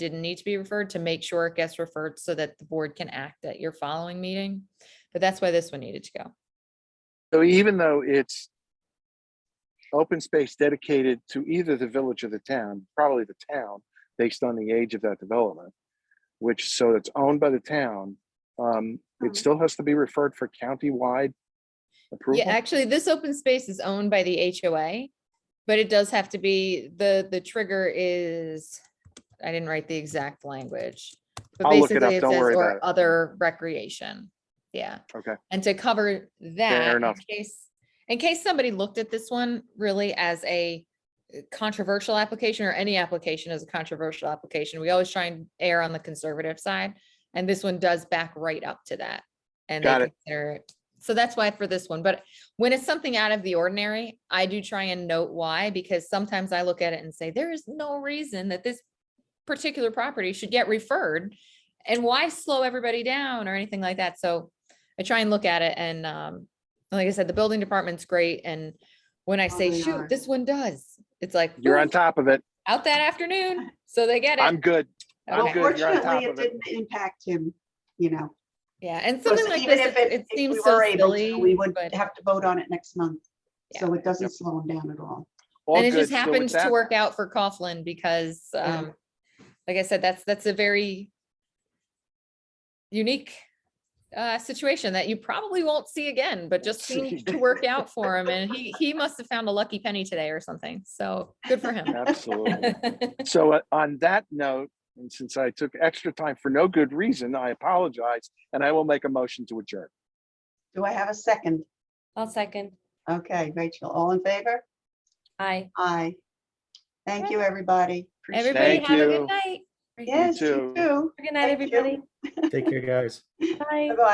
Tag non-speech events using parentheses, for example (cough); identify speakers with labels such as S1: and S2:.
S1: didn't need to be referred to make sure it gets referred so that the board can act at your following meeting. But that's why this one needed to go.
S2: So even though it's open space dedicated to either the village or the town, probably the town, based on the age of that development, which, so it's owned by the town, um,
S3: Mhm.
S2: it still has to be referred for countywide
S1: Hmm. Yeah,
S2: approval.
S1: actually, this open space is owned by the HOA, but it does have to be, the, the trigger is, I didn't write the exact language. but
S2: I'll look it
S1: basically
S2: up, don't
S1: says,
S2: worry
S1: "or
S2: about it."
S1: Other recreation, yeah.
S2: Okay.
S1: And to cover that, in
S2: enough.
S1: case, in case somebody looked at this one really as a controversial application or any application as a controversial application, we always try and err on the conservative side. And this one does back right up to that. And
S2: Got
S1: they
S2: it.
S1: consider it. So that's why for this one, but when it's something out of the ordinary, I do try and note why, because sometimes I look at it and say, there is no reason that this particular property should get referred. And why slow everybody down or anything like that? So I try and look at it and, um, like I said, the building department's great. And when I
S3: Oh,
S1: say,
S3: they
S1: shoot,
S3: are.
S1: this one does, it's like,
S2: You're
S1: "Ooh,
S2: on top of it.
S1: out that afternoon. So they get
S2: I'm
S1: it.
S2: good. I'm
S1: Okay.
S2: good. You're on top
S3: Fortunately, it
S2: of it.
S3: didn't impact him, you know.
S1: Yeah, and
S3: because
S1: something like
S3: even
S1: this,
S3: if
S1: it- it
S3: if
S1: seems
S3: we
S1: so
S3: were able to,
S1: silly,
S3: We would
S1: but,
S3: have to vote on it next month, so it doesn't
S2: Yep.
S3: slow him down at all.
S2: All
S1: and it
S2: good.
S1: just
S2: So with
S1: happens to
S2: that-
S1: work out for Coughlin because,
S3: Yeah.
S1: um, like I said, that's, that's a very unique, uh, situation that you probably won't see again, but just seemed to work out for him and he, he must have found a lucky penny today or something. So good for him. (laughs)
S2: Absolutely. So uh, on that note, and since I took extra time for no good reason, I apologize, and I will make a motion to adjourn.
S3: Do I have a second?
S4: (laughs) I'll second.
S3: Okay, Rachel, all in favor?
S4: Aye.
S3: Aye. Thank you, everybody. Appreciate it.
S1: Everybody
S2: Thank
S1: have a
S2: you.
S1: good night.
S4: Great.
S3: Yes, you
S2: too.
S3: too.
S4: Good night,
S3: Thank you.
S4: everybody.
S5: Take care, guys.
S4: Bye.
S3: Bye-bye.